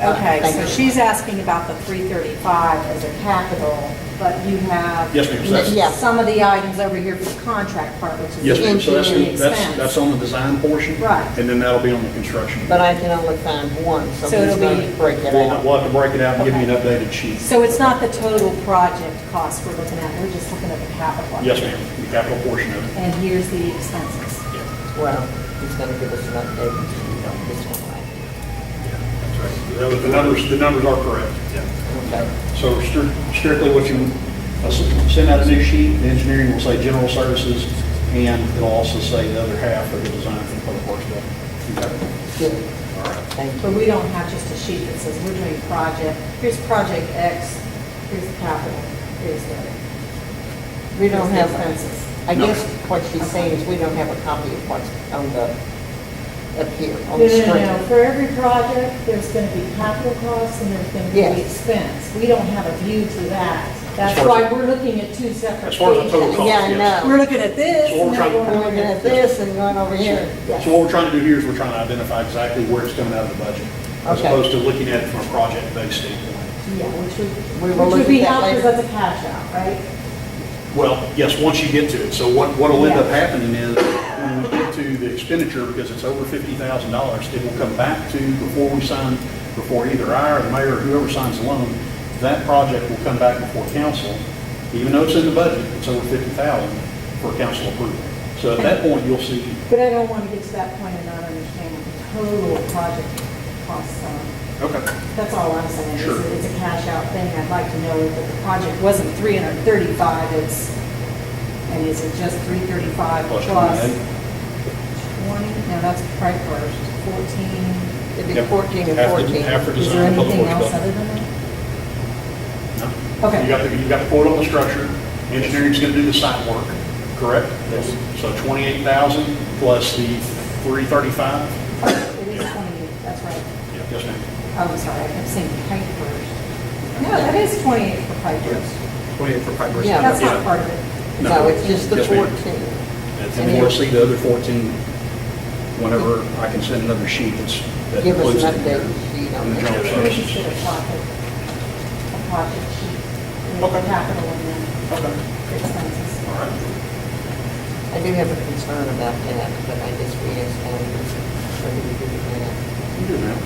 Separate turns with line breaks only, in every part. Okay,
Thank
so
you.
she's asking about the 335 as a capital, but you have.
Yes, ma'am, so that's-
Yeah.
Some of the items over here for the contract part, which is
Yes, ma'am, so that's,
engineering
the- that's,
expense.
that's on the design portion.
Right.
And then that'll be on the construction.
But I can only find one, so
So
he's
it'll
going
be-
to break it
We'll have
out.
we'll have to break it out and give you an updated sheet.
So it's not the total project cost we're looking at, we're just looking at the capital.
Yes, ma'am, the capital portion of it.
And here's the expenses.
Yeah.
Well, he's going to give us an update, so we don't miss one, right?
That was- The numbers, the numbers are correct.
Okay.
So stri- strictly what you, uh, s- send out a new sheet, the engineering will say general services, and it'll also say the other half of the design for the public works building. Okay.
Good.
All right.
Thank
But
you.
we don't have just a sheet that says we're doing project, here's project X, here's the capital, here's the.
We don't
here's
have,
the Expenses.
I
No.
guess what she's saying is we don't have a copy of what's on the, up here,
No,
on the
no, no, no.
screen.
For every project, there's going to be capital costs and there's going to be
Yes.
expense. We don't have a view to that. That's
As far
why
as-
we're looking at two separate
As far as the
things.
total cost,
Yeah, I
yes.
know.
We're looking at this
So we're
and then
trying-
we're
We're
looking
looking
at
at
this.
this and going over here. Yes.
So what we're trying to do here is we're trying to identify exactly where it's coming out of the budget, as
Okay.
opposed to looking at it from a project-based standpoint.
Yeah, which
We
would,
will
which
look
would be
at
helpful
that
because
later.
that's a cash out, right?
Well, yes, once you get to it. So what, what'll end up
Yeah.
happening is, when we get to the expenditure, because it's over fifty thousand dollars, it will come back to, before we sign, before either I or the mayor or whoever signs the loan, that project will come back before council, even though it's in the budget, it's over fifty thousand for council approval. So at that point, you'll see,
But I don't want to get to that point and not understand what the total project costs are.
okay,
That's all I'm saying, is
Sure.
that it's a cash out thing, I'd like to know that the project wasn't 335, it's, and is it just 335
Plus
plus
28.
20? No, that's right first, 14.
It'd be
Yep.
14 and
Half the-
14.
half the
Is there
design, public
anything
works
else
building.
other than that?
No.
Okay.
You got the, you got the quote on the structure, engineering's gonna do the site work, correct?
Yes.
So twenty-eight thousand plus the three thirty-five?
Oh, It is 28, that's right.
Yes, ma'am.
Oh, I'm sorry, I kept saying pipe first. No, that is 28 for pipe first.
Twenty-eight for fiber.
Yeah.
That's not part of it.
No, it's just the
Yes, ma'am.
14.
And then we'll see the other fourteen whenever I can send another sheet that's. that
Give us
includes
an
it.
update sheet on
And the general
that.
Maybe you
services.
should have project, a project sheet, and
Okay.
capital and then
Okay,
expenses.
all right.
I do have a concern about that, but I just re-asked so we do that.
You do now.
I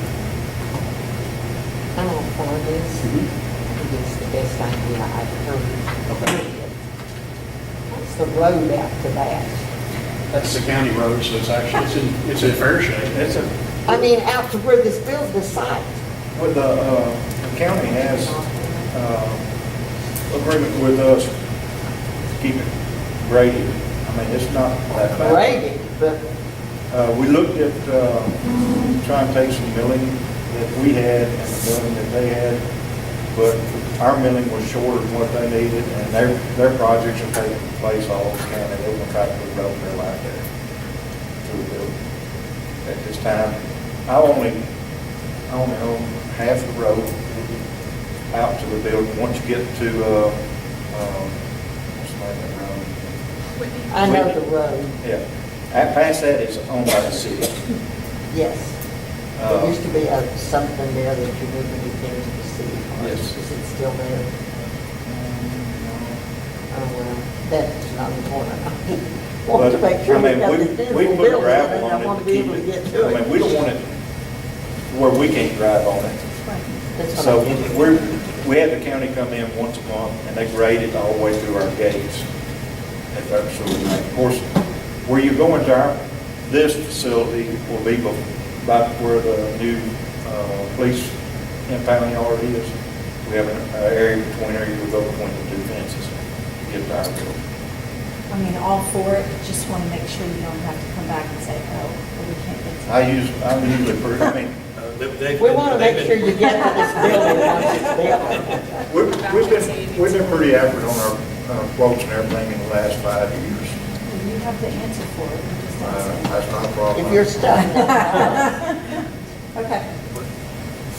don't for this.
Mm-hmm.
Mhm.
I think it's the best idea I've heard.
Okay.
What's the road out to that?
That's the county road, so it's actually, it's in, it's in fair shape. It's a.
I mean, out to where this build, the site.
Well, the uh, county has uh, agreement with us to keep it graded. I mean, it's not that bad.
Graded, but
Uh, We looked at uh, trying to take some milling that we had and the milling that they had, but our milling was shorter than what they needed, and their, their projects are taking place all over county. They will try to put road there like that through the building at this time. I only, I only own half the road out to the building. Once you get to, uh, um, what's the name of that
I
road?
know the road,
Yeah, that- past that is owned by the city.
yes. There
Uh,
used to be a something there that you wouldn't be there to see.
Yes.
Is it still there? Oh, well, that's not important. I Want to
But,
make sure
I
we
mean,
got
we-
this beautiful
we put
building,
gravel
and
on
I
it
want to be
keep
able to get to
I
it.
mean, we don't want it where we can't drive on it.
That's what
So
I'm thinking.
we're, we have the county come in once a month and they grade it all the way through our gates. If that's so, of course, where you're going to our, this facility will be bef- about where the new, uh, police impound yard is. We have an uh, area between, or you go between the two fences to get to our building.
I mean, all for it, but just want to make sure you don't have to come back and say, oh, well, we can't get to.
I use, I'm usually pretty, I mean,
Uh,
We want to make sure you get to this building once it's built.
we've we've been, we've been pretty accurate on our uh, quotes and everything in the last five years.
Well, You have the answer for it, you just
Uh,
don't say.
That's not a problem.
If you're stuck.
Okay,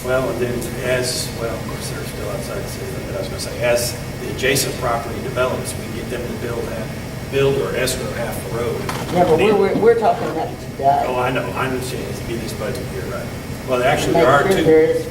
Well, and then as, well, of course, they're still outside the city limit, I was gonna say, as the adjacent property develops, we get them to build half, build or escrow half the road.
Yeah, but we're, we're, we're talking about
Oh,
today.
I know, I understand, it's be this budget year, right? Well, actually,
Make
there are
sure there is
two,